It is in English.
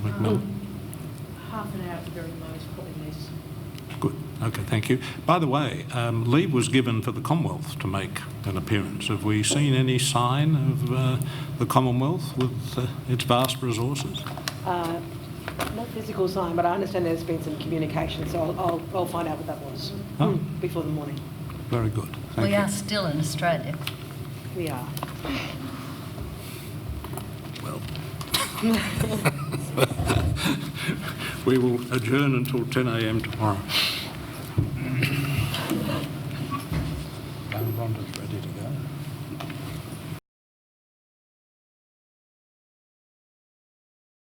No. Half an hour at the very most, probably less. Good. Okay, thank you. By the way, um, leave was given for the Commonwealth to make an appearance. Have we seen any sign of uh, the Commonwealth with uh, its vast resources? Uh, Not physical sign, but I understand there's been some communication, so I'll, I'll, I'll find out what that was Oh. before the morning. Very good. Thank We you. are still in Australia. We are. We will adjourn until 10 a.m. tomorrow. Rhonda's ready to go.